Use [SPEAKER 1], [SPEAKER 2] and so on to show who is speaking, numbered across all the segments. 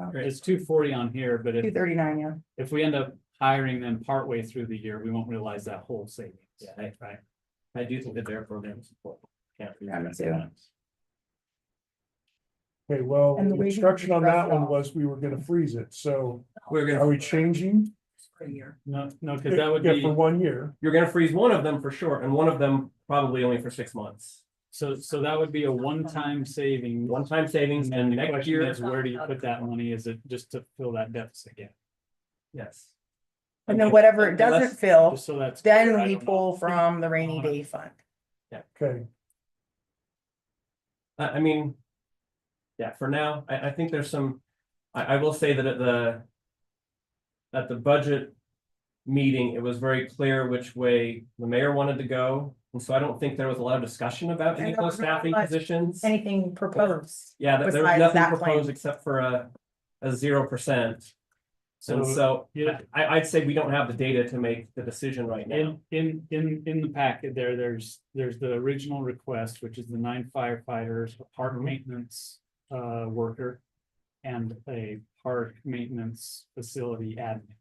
[SPEAKER 1] out.
[SPEAKER 2] It's two forty on here, but
[SPEAKER 1] Um, Two
[SPEAKER 2] if,
[SPEAKER 1] thirty-nine, yeah.
[SPEAKER 2] if we end up hiring them partway through the year, we won't realize that whole savings. Yeah, that's right. I do think that their program is important. Can't be-
[SPEAKER 1] Yeah, me too.
[SPEAKER 3] Okay, well,
[SPEAKER 1] And the
[SPEAKER 3] the
[SPEAKER 1] way you
[SPEAKER 3] instruction on that
[SPEAKER 1] crossed it
[SPEAKER 3] one
[SPEAKER 1] off.
[SPEAKER 3] was we were gonna freeze it, so
[SPEAKER 4] We're
[SPEAKER 3] are
[SPEAKER 4] gonna,
[SPEAKER 3] we changing?
[SPEAKER 2] No, no, because that would
[SPEAKER 3] Yeah,
[SPEAKER 2] be,
[SPEAKER 3] For one year,
[SPEAKER 4] you're gonna freeze one of them for sure, and one of them probably only for six months.
[SPEAKER 2] so, so that would be a one-time saving.
[SPEAKER 4] One-time savings and
[SPEAKER 2] And the
[SPEAKER 4] next
[SPEAKER 2] question
[SPEAKER 4] year,
[SPEAKER 2] is, where do you put that money? Is it just to fill that deficit gap?
[SPEAKER 4] yes.
[SPEAKER 1] And then whatever it
[SPEAKER 4] Unless-
[SPEAKER 1] doesn't fill,
[SPEAKER 2] Just so that's. clear,
[SPEAKER 1] Oh, then
[SPEAKER 2] I
[SPEAKER 1] we
[SPEAKER 2] don't know.
[SPEAKER 1] pull from the rainy day fund.
[SPEAKER 3] okay,
[SPEAKER 4] I, I mean. Yeah, for now, I, I think there's some, I, I will say that at the. At the budget. Meeting, it was very clear which way the mayor wanted to go, and so I don't think there was a lot of discussion about any of those staffing positions.
[SPEAKER 1] Anything proposed?
[SPEAKER 4] Yeah, there- there was
[SPEAKER 1] besides
[SPEAKER 4] nothing
[SPEAKER 1] that plan.
[SPEAKER 4] proposed except for a, a zero percent.
[SPEAKER 1] Um,
[SPEAKER 4] And
[SPEAKER 2] So
[SPEAKER 4] so,
[SPEAKER 2] yeah.
[SPEAKER 4] I, I'd say we don't have the data to make the decision right now.
[SPEAKER 2] in, in, in, in the packet there, there's, there's the original request, which is the nine firefighters, a
[SPEAKER 3] Mm-hmm.
[SPEAKER 2] park maintenance uh, worker. And a park maintenance facility admin.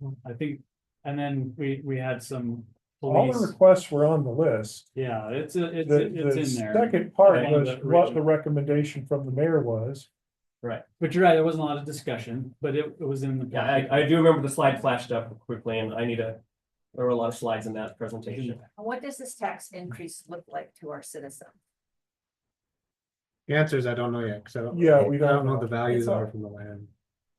[SPEAKER 3] Mm-hmm.
[SPEAKER 2] I think, and then we, we had some
[SPEAKER 3] all
[SPEAKER 2] police,
[SPEAKER 3] the requests were on the list.
[SPEAKER 2] yeah, it's, a- it's,
[SPEAKER 3] The,
[SPEAKER 2] a- it's
[SPEAKER 3] the
[SPEAKER 2] in there.
[SPEAKER 3] second part
[SPEAKER 2] Yeah.
[SPEAKER 3] was
[SPEAKER 2] The
[SPEAKER 3] what the
[SPEAKER 2] original.
[SPEAKER 3] recommendation from the mayor was.
[SPEAKER 2] But you're right, there wasn't a lot of discussion, but it, it was in the.
[SPEAKER 4] Yeah,
[SPEAKER 2] packet.
[SPEAKER 4] I, I do remember the slide flashed up quickly and I need a, there were a lot of slides in that presentation.
[SPEAKER 1] Mm-hmm.
[SPEAKER 5] And What does this tax increase look like to our citizens?
[SPEAKER 6] The answer is I don't know yet, because I don't.
[SPEAKER 3] Yeah, we
[SPEAKER 6] I don't know what the
[SPEAKER 3] don't know.
[SPEAKER 6] values
[SPEAKER 1] It's all-
[SPEAKER 6] are from the land.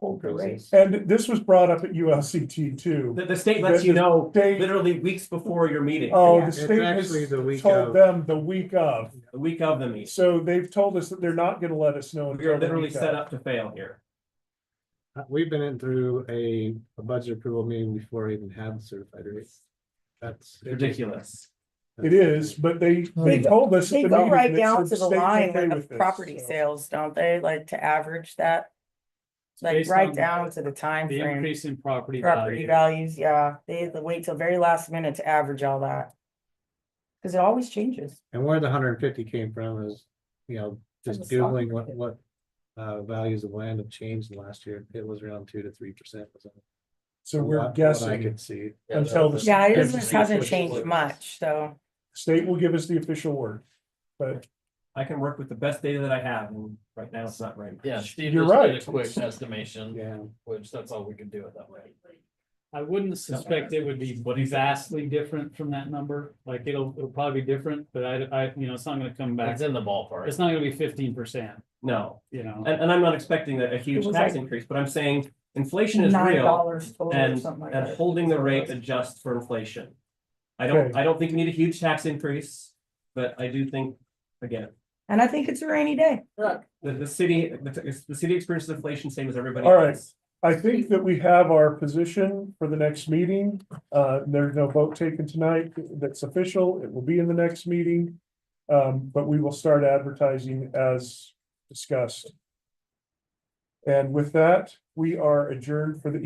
[SPEAKER 1] Hold the rate.
[SPEAKER 3] And this was brought up at ULCT too.
[SPEAKER 4] The, the state lets you know
[SPEAKER 3] They,
[SPEAKER 4] literally weeks before your meeting,
[SPEAKER 3] oh, the
[SPEAKER 1] It's
[SPEAKER 3] state
[SPEAKER 6] actually the
[SPEAKER 3] has
[SPEAKER 6] week of.
[SPEAKER 3] told them the week of,
[SPEAKER 4] the week of the meeting.
[SPEAKER 3] so they've told us that they're not gonna let us know.
[SPEAKER 4] We are
[SPEAKER 3] until the
[SPEAKER 4] literally
[SPEAKER 3] week
[SPEAKER 4] set
[SPEAKER 3] of.
[SPEAKER 4] up to fail here.
[SPEAKER 6] Uh, We've been in through a, a budget approval meeting before we even had the certified rates. That's.
[SPEAKER 4] Ridiculous.
[SPEAKER 3] It is, but they, they
[SPEAKER 1] They go-
[SPEAKER 3] told us. at
[SPEAKER 1] They
[SPEAKER 3] the
[SPEAKER 1] go
[SPEAKER 3] meeting
[SPEAKER 1] right
[SPEAKER 3] that
[SPEAKER 1] down
[SPEAKER 3] said
[SPEAKER 1] to the
[SPEAKER 3] state's
[SPEAKER 1] line
[SPEAKER 3] okay
[SPEAKER 1] with
[SPEAKER 3] with
[SPEAKER 1] the
[SPEAKER 3] this,
[SPEAKER 1] property
[SPEAKER 3] so.
[SPEAKER 1] sales, don't they? Like to average that, like
[SPEAKER 2] Based
[SPEAKER 1] right
[SPEAKER 2] on
[SPEAKER 1] down to the time
[SPEAKER 2] The
[SPEAKER 1] frame.
[SPEAKER 2] increase in property
[SPEAKER 1] Property
[SPEAKER 2] value.
[SPEAKER 1] values, yeah, they have to wait till very last minute to average all that. Cause it always changes.
[SPEAKER 6] And where the hundred and fifty came from is, you know, just
[SPEAKER 1] From the stock
[SPEAKER 6] googling
[SPEAKER 1] market.
[SPEAKER 6] what, what. Uh, values of land have changed in the last year. It was around two to three percent.
[SPEAKER 3] So we're
[SPEAKER 6] I
[SPEAKER 3] guessing,
[SPEAKER 6] could see.
[SPEAKER 3] Until the-
[SPEAKER 1] Yeah, it
[SPEAKER 3] Yeah,
[SPEAKER 1] isn't-
[SPEAKER 3] just
[SPEAKER 1] hasn't
[SPEAKER 3] push it
[SPEAKER 1] changed
[SPEAKER 3] forward.
[SPEAKER 1] much, so
[SPEAKER 3] state will give us the official word. But
[SPEAKER 4] I can work with the best data that I have and right now it's not right.
[SPEAKER 7] Yeah, Steve
[SPEAKER 3] You're
[SPEAKER 7] just did a
[SPEAKER 3] right.
[SPEAKER 7] quick estimation,
[SPEAKER 6] Yeah.
[SPEAKER 7] which that's all we could do at that way.
[SPEAKER 2] I wouldn't suspect it would be vastly different from that number, like it'll, it'll probably be different, but I, I, you know, it's not gonna come back.
[SPEAKER 7] It's in the ballpark.
[SPEAKER 2] It's not gonna be fifteen percent,
[SPEAKER 4] No,
[SPEAKER 2] you know,
[SPEAKER 4] and, and I'm not expacting a, a huge
[SPEAKER 1] was
[SPEAKER 4] tax
[SPEAKER 1] like-
[SPEAKER 4] increase, but I'm saying inflation is
[SPEAKER 1] nine
[SPEAKER 4] real.
[SPEAKER 1] dollars total or
[SPEAKER 4] And,
[SPEAKER 1] something like
[SPEAKER 4] and
[SPEAKER 1] that.
[SPEAKER 4] holding the rate adjust for inflation. I don't,
[SPEAKER 3] Okay.
[SPEAKER 4] I don't think we need a huge tax increase, but I do think, again,
[SPEAKER 1] And I think it's a rainy day.
[SPEAKER 5] Look,
[SPEAKER 4] the, the city, the, the city experiences inflation same as everybody
[SPEAKER 3] All right.
[SPEAKER 4] else.
[SPEAKER 3] I think that we have our position for the next meeting. Uh, there's no vote taken tonight that's official. It will be in the next meeting. Um, but we will start advertising as discussed. And with that, we are adjourned for the